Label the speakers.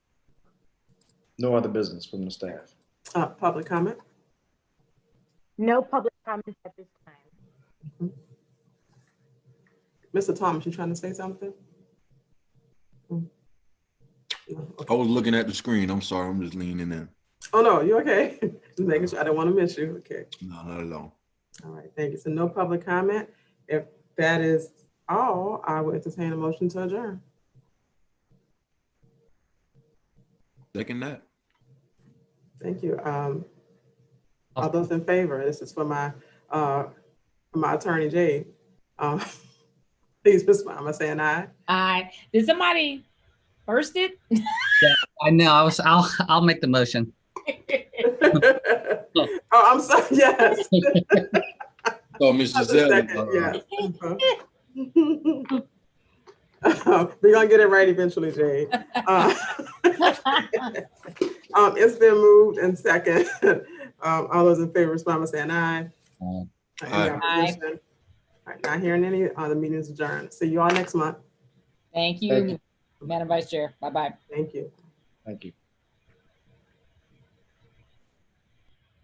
Speaker 1: No other business from the staff.
Speaker 2: Uh, Public comment?
Speaker 3: No public comments at this time.
Speaker 2: Mr. Thomas, you trying to say something? Mm. No, okay.
Speaker 4: I was looking at the screen. I'm sorry. I'm just leaning in.
Speaker 2: Oh, no, you okay? Just making sure, I don't want to miss you. Okay,
Speaker 4: No, not at all.
Speaker 2: all right, thank you. So no public comment. If that is all, I will entertain a motion to adjourn.
Speaker 4: Second that.
Speaker 2: Thank you. Um, All those in favor, this is for my, uh, for my attorney, Jay. Um, Please respond by saying aye.
Speaker 5: Aye. Did somebody first it?
Speaker 6: I know. I was. I'll. I'll make the motion.
Speaker 2: Oh, I'm sorry, yes.
Speaker 4: Oh, Miss
Speaker 2: That's a
Speaker 4: Giselle.
Speaker 2: second,
Speaker 4: uh,
Speaker 2: yes. We're Uh-huh. Uh, gonna get it right eventually, Jay. Uh, Um, it's been moved and second. Um, all those in favor, respond by saying aye.
Speaker 6: Aye.
Speaker 2: Any
Speaker 5: Aye.
Speaker 2: opposition? All right, not hearing any, uh, the meeting is adjourned. See you all next month.
Speaker 5: Thank you, Madam Vice Chair. Bye-bye.
Speaker 2: Thank you.
Speaker 1: Thank you.